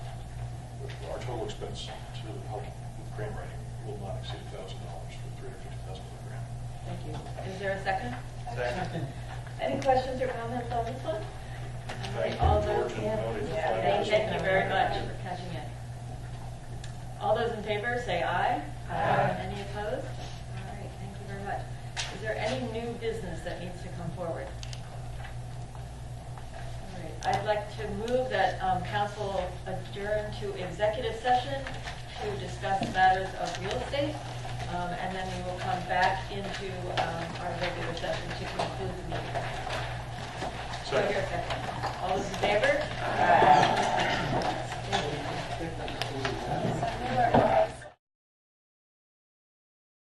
total expense to help with grant writing will not exceed thousand dollars for three hundred fifty thousand dollar grant. Thank you. Is there a second? Second. Any questions or comments on this one? Thank you, All those- George and Melody, for Yeah, finding this Thank thank out. you very much for catching it. All those in favor, say aye. Aye. Any opposed? All right, thank you very much. Is there any new business that needs to come forward? All right, I'd like to move that um, council adjourn to executive session to discuss matters of real estate, um, and then we will come back into um, our regular session to conclude the meeting. Do I hear a second? All those in favor?